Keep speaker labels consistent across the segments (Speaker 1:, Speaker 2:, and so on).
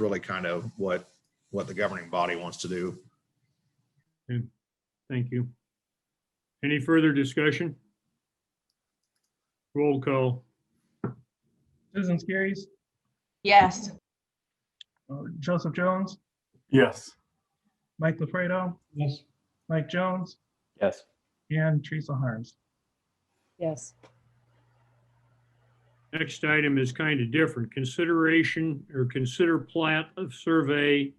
Speaker 1: really kind of what, what the governing body wants to do.
Speaker 2: Thank you. Any further discussion? Roll call.
Speaker 3: Susan Skerrys,
Speaker 4: Yes.
Speaker 3: uh, Joseph Jones,
Speaker 5: Yes.
Speaker 3: Mike LaFredo,
Speaker 2: Yes.
Speaker 3: Mike Jones,
Speaker 5: Yes.
Speaker 3: and Teresa Harms.
Speaker 6: Yes.
Speaker 2: Next item is kind of different. Consideration or consider plat of survey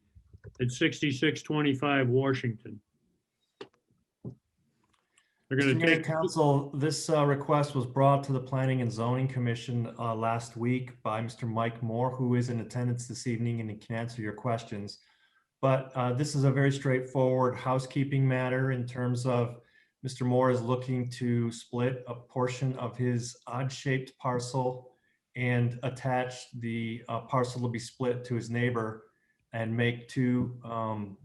Speaker 2: at 6625 Washington. They're going
Speaker 7: Mr.
Speaker 2: to
Speaker 7: Mayor
Speaker 2: take,
Speaker 7: and Council, this uh, request was brought to the Planning and Zoning Commission uh, last week by Mr. Mike Moore, who is in attendance this evening and he can answer your questions. But uh, this is a very straightforward housekeeping matter in terms of Mr. Moore is looking to split a portion of his odd-shaped parcel and attach the uh, parcel to be split to his neighbor and make two um,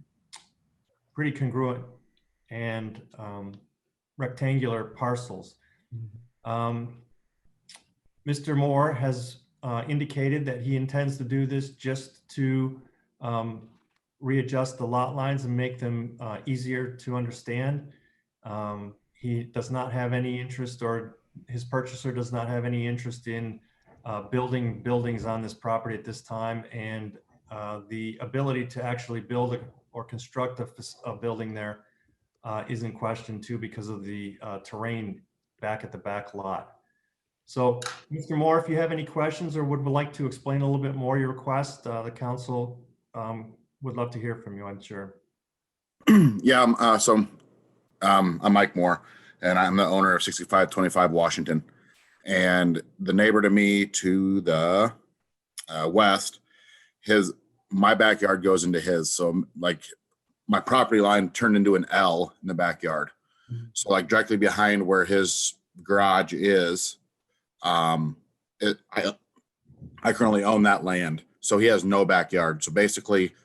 Speaker 7: pretty congruent and um, rectangular parcels. Um, Mr. Moore has uh, indicated that he intends to do this just to um, readjust the lot lines and make them uh, easier to understand. Um, He does not have any interest, or his purchaser does not have any interest in uh, building buildings on this property at this time, and uh, the ability to actually build a- or construct a fac- a building there uh, is in question too because of the uh, terrain back at the back lot. So, Mr. Moore, if you have any questions or would like to explain a little bit more your request, uh, the council um, would love to hear from you, I'm sure.
Speaker 8: Yeah, I'm, uh, so, um, I'm Mike Moore and I'm the owner of sixty-five twenty-five Washington. And the neighbor to me to the, uh, west, his, my backyard goes into his, so m- like my property line turned into an L in the backyard. So like directly behind where his garage is, um, it, I, I currently own that land, so he has no backyard. So basically,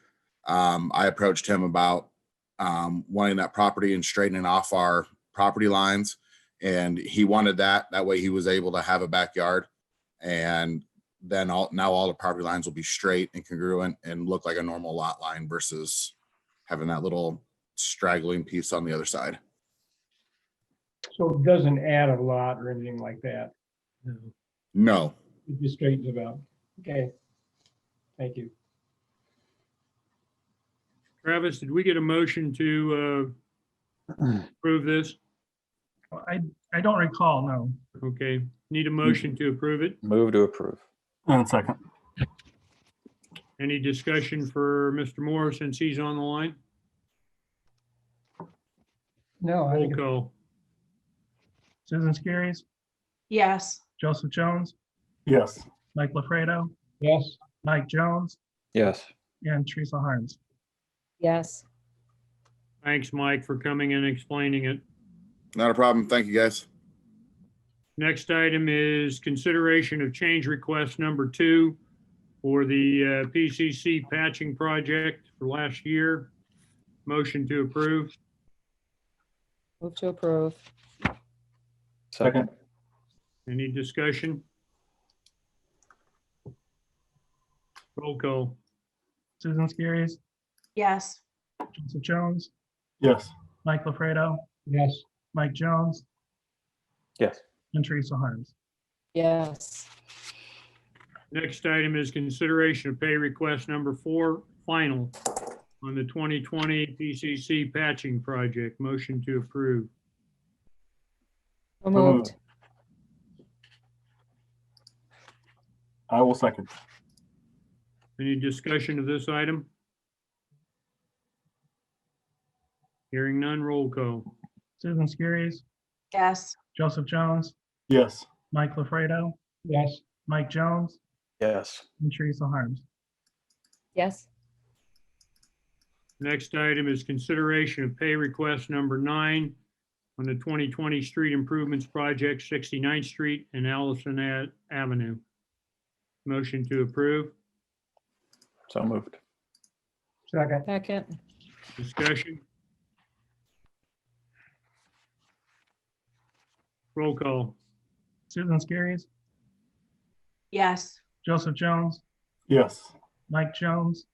Speaker 8: um, I approached him about um, wanting that property and straightening off our property lines. And he wanted that. That way he was able to have a backyard. And then all, now all the property lines will be straight and congruent and look like a normal lot line versus having that little straggling piece on the other side.
Speaker 9: So it doesn't add a lot or anything like that.
Speaker 8: No,
Speaker 9: It just straightens it out. Okay. Thank you.
Speaker 2: Travis, did we get a motion to uh, approve this?
Speaker 3: Well, I, I don't recall, no.
Speaker 2: Okay, need a motion to approve it?
Speaker 5: Move to approve.
Speaker 7: And second.
Speaker 2: Any discussion for Mr. Moore since he's on the line?
Speaker 9: No, I
Speaker 2: Roll
Speaker 9: think,
Speaker 2: call.
Speaker 3: Susan Skerrys,
Speaker 4: Yes.
Speaker 3: Joseph Jones,
Speaker 5: Yes.
Speaker 3: Mike LaFredo,
Speaker 9: yes,
Speaker 3: Mike Jones,
Speaker 5: Yes.
Speaker 3: and Teresa Harms.
Speaker 6: Yes.
Speaker 2: Thanks, Mike, for coming and explaining it.
Speaker 8: not a problem. Thank you, guys.
Speaker 2: Next item is consideration of change request number two for the uh, PCC patching project for last year. Motion to approve.
Speaker 6: Move to approve.
Speaker 5: Second.
Speaker 2: Any discussion? Roll call.
Speaker 3: Susan Skerrys,
Speaker 4: Yes.
Speaker 3: Joseph Jones,
Speaker 5: Yes.
Speaker 3: Mike LaFredo,
Speaker 9: yes.
Speaker 3: Mike Jones,
Speaker 5: Yes.
Speaker 3: and Teresa Harms.
Speaker 6: Yes.
Speaker 2: Next item is consideration of pay request number four, final, on the 2020 PCC patching project. Motion to approve.
Speaker 6: So moved.
Speaker 5: I will second.
Speaker 2: Any discussion of this item? Hearing none, roll call.
Speaker 3: Susan Skerrys,
Speaker 4: Yes.
Speaker 3: Joseph Jones,
Speaker 5: Yes.
Speaker 3: Mike LaFredo,
Speaker 9: Yes,
Speaker 3: Mike Jones,
Speaker 5: Yes.
Speaker 3: and Teresa Harms.
Speaker 6: Yes.
Speaker 2: Next item is consideration of pay request number nine on the 2020 Street Improvements Project, 69th Street and Allison A- Avenue. Motion to approve.
Speaker 5: So moved.
Speaker 9: second,
Speaker 6: Second.
Speaker 2: Discussion? Roll call.
Speaker 3: Susan Skerrys,
Speaker 4: Yes.
Speaker 3: Joseph Jones,
Speaker 5: Yes.
Speaker 3: Mike Jones,